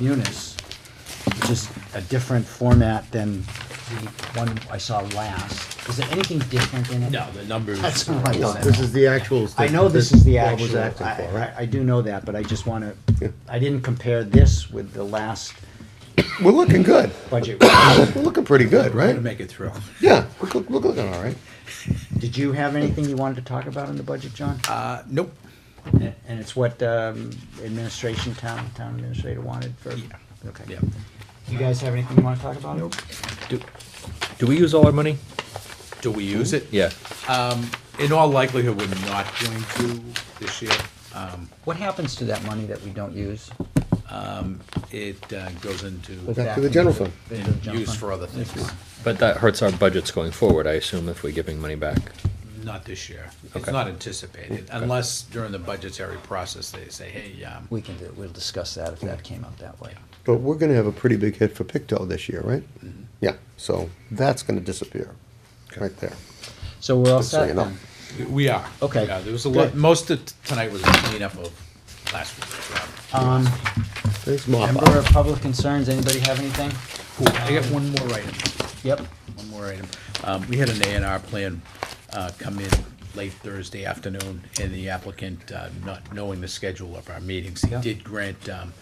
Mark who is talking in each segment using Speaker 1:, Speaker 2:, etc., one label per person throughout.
Speaker 1: munis, which is a different format than the one I saw last. Is there anything different in it?
Speaker 2: No, the numbers.
Speaker 1: That's what I
Speaker 2: Well,
Speaker 1: thought.
Speaker 3: This is the actual.
Speaker 1: I know this is the
Speaker 3: Bob was
Speaker 1: actual, I,
Speaker 3: acting for.
Speaker 1: I- I do know that, but I just wanna, I didn't compare this with the last
Speaker 3: We're looking good.
Speaker 1: budget.
Speaker 3: We're looking pretty good,
Speaker 2: To
Speaker 3: right?
Speaker 2: make it through.
Speaker 3: Yeah, we're, look- we're looking all right.
Speaker 1: Did you have anything you wanted to talk about in the budget, John?
Speaker 2: Uh, nope.
Speaker 1: And and it's what, um, administration, town, town administrator wanted for?
Speaker 2: Yeah.
Speaker 1: Okay.
Speaker 2: Yeah.
Speaker 1: You guys have anything you wanna talk about? Nope.
Speaker 4: Do, do we use all our money?
Speaker 2: Do we use it?
Speaker 4: Yeah.
Speaker 2: In all likelihood, we're not going to this year. Um,
Speaker 1: What happens to that money that we don't use?
Speaker 2: it uh, goes into
Speaker 3: Well, Back to the general fund.
Speaker 1: Into the general
Speaker 2: use
Speaker 1: fund?
Speaker 2: for other things,
Speaker 4: But that hurts our budgets going forward, I assume, if we're giving money back.
Speaker 2: not this year. It's
Speaker 4: Okay.
Speaker 2: not anticipated, unless during the budgetary process, they say, hey, um,
Speaker 1: We can do, we'll discuss that if that came up that way.
Speaker 3: But we're gonna have a pretty big hit for Picto this year, right?
Speaker 1: Mm-hmm.
Speaker 3: Yeah, so that's gonna disappear, right there.
Speaker 1: So we're all
Speaker 3: Just so
Speaker 1: set
Speaker 3: you know.
Speaker 1: then?
Speaker 2: we are.
Speaker 1: Okay.
Speaker 2: Yeah, There was a
Speaker 1: Good.
Speaker 2: lot, most of tonight was a cleanup of last week's job.
Speaker 1: Um,
Speaker 3: There's mop
Speaker 1: member of
Speaker 3: up.
Speaker 1: public concerns, anybody have anything?
Speaker 2: Cool. I got one more item.
Speaker 1: Yep.
Speaker 2: One more item. Um, we had an A and R plan, uh, come in late Thursday afternoon, and the applicant, uh, not knowing the schedule of our meetings, he
Speaker 1: Yeah.
Speaker 2: did grant, um,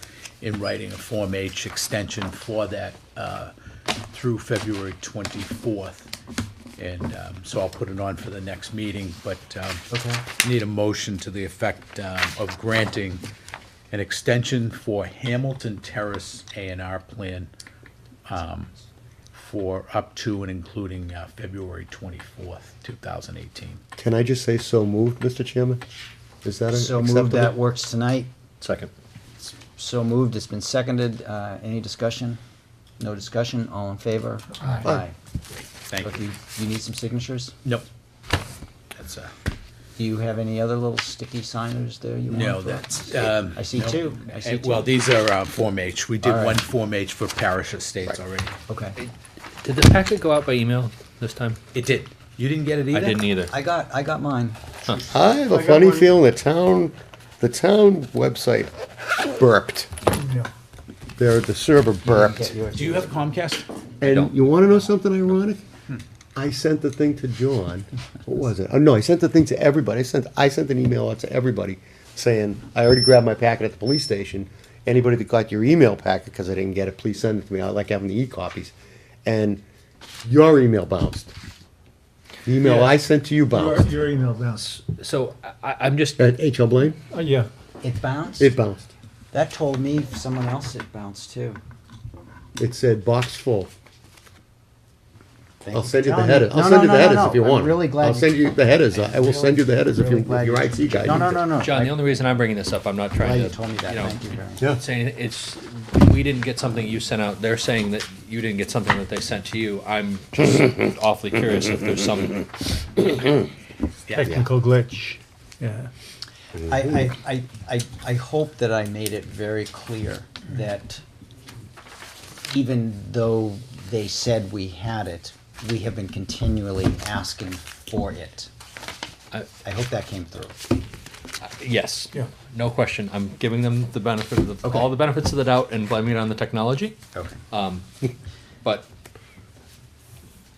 Speaker 2: in writing, a Form H extension for that, uh, through February twenty-fourth. And, um, so I'll put it on for the next meeting, but, um,
Speaker 1: Okay.
Speaker 2: need a motion to the effect, um, of granting an extension for Hamilton Terrace A and R plan for up to and including uh, February 24th, 2018.
Speaker 3: Can I just say so moved, Mr. Chairman? Is that
Speaker 1: So moved, that
Speaker 3: acceptable?
Speaker 1: works tonight.
Speaker 4: Second.
Speaker 1: So moved, it's been seconded. Uh, any discussion? No discussion, all in favor? Aye.
Speaker 2: Thank
Speaker 1: Look,
Speaker 2: you.
Speaker 1: you, you need some signatures?
Speaker 2: Nope. That's, uh,
Speaker 1: Do you have any other little sticky signers there you want?
Speaker 2: no,
Speaker 1: for-
Speaker 2: that's. um,
Speaker 1: I see
Speaker 2: no.
Speaker 1: two. I see
Speaker 2: And- Well,
Speaker 1: two.
Speaker 2: these are uh, Form H. We did
Speaker 1: All right.
Speaker 2: one Form H for parish estates already.
Speaker 1: Okay.
Speaker 4: Did the packet go out by email this time?
Speaker 2: It did. You didn't get it either?
Speaker 4: I didn't either.
Speaker 1: I e- got, I got mine.
Speaker 3: I have a funny feeling the town, the town website burped. There, the server burped.
Speaker 2: Do you have Comcast?
Speaker 3: And you wanna know something ironic?
Speaker 5: Hmm.
Speaker 3: I sent the thing to John, what was it? Oh, no, I sent the thing to everybody, I sent, I sent an email out to everybody saying, I already grabbed my packet at the police station. Anybody that got your email packet, cause I didn't get it, please send it to me, I like having the e-copies. And your email bounced. The email
Speaker 5: Yeah.
Speaker 3: I sent to you
Speaker 5: Your,
Speaker 3: bounced.
Speaker 5: your email bounced.
Speaker 4: So I, I'm just,
Speaker 3: At HL Blaine,
Speaker 5: Uh, yeah.
Speaker 1: It bounced?
Speaker 3: it bounced.
Speaker 1: That told me someone else it bounced too.
Speaker 3: It said box full.
Speaker 1: Thank
Speaker 3: I'll
Speaker 1: for
Speaker 3: send you the
Speaker 1: telling me.
Speaker 3: headers,
Speaker 1: No,
Speaker 3: I'll send
Speaker 1: no,
Speaker 3: you the
Speaker 1: no, no,
Speaker 3: headers
Speaker 1: no.
Speaker 3: if you want.
Speaker 1: I'm really glad.
Speaker 3: I'll send you the headers, I will send you the headers if you,
Speaker 1: really glad
Speaker 3: your
Speaker 1: you-
Speaker 3: IT guy.
Speaker 1: No, no,
Speaker 3: needs it.
Speaker 1: no, no.
Speaker 4: John, the only reason I'm bringing this up, I'm not
Speaker 1: Glad
Speaker 4: trying
Speaker 1: you
Speaker 4: to,
Speaker 1: told me that,
Speaker 4: you know,
Speaker 1: thank you very much.
Speaker 3: Yeah.
Speaker 4: say anything. It's, we didn't get something you sent out. They're saying that you didn't get something that they sent to you. I'm just awfully curious if there's some,
Speaker 5: Technical glitch. Yeah.
Speaker 1: I, I, I, I, I hope that I made it very clear that even though they said we had it, we have been continually asking for it.
Speaker 4: I-
Speaker 1: I hope that came through.
Speaker 4: yes.
Speaker 5: Yeah.
Speaker 4: No question. I'm giving them the benefit of the,
Speaker 1: Okay.
Speaker 4: all the benefits of the doubt and blaming it on the technology.
Speaker 1: Okay.
Speaker 4: Um, but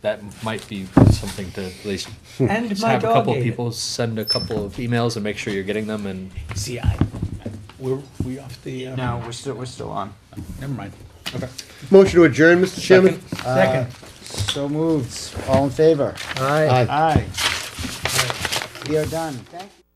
Speaker 4: that might be something to at least
Speaker 6: And my
Speaker 4: have a couple
Speaker 6: dog
Speaker 4: of
Speaker 6: ate it.
Speaker 4: people send a couple of emails and make sure you're getting them. And
Speaker 2: See, I, we're, we off the, uh,
Speaker 1: No, we're still, we're still on.
Speaker 2: never mind. Okay.
Speaker 3: Motion to adjourn, Mr. Chairman?
Speaker 5: Second.
Speaker 1: So moved, all in favor?
Speaker 5: Aye.
Speaker 3: Aye.
Speaker 1: Aye. We are done, thank you.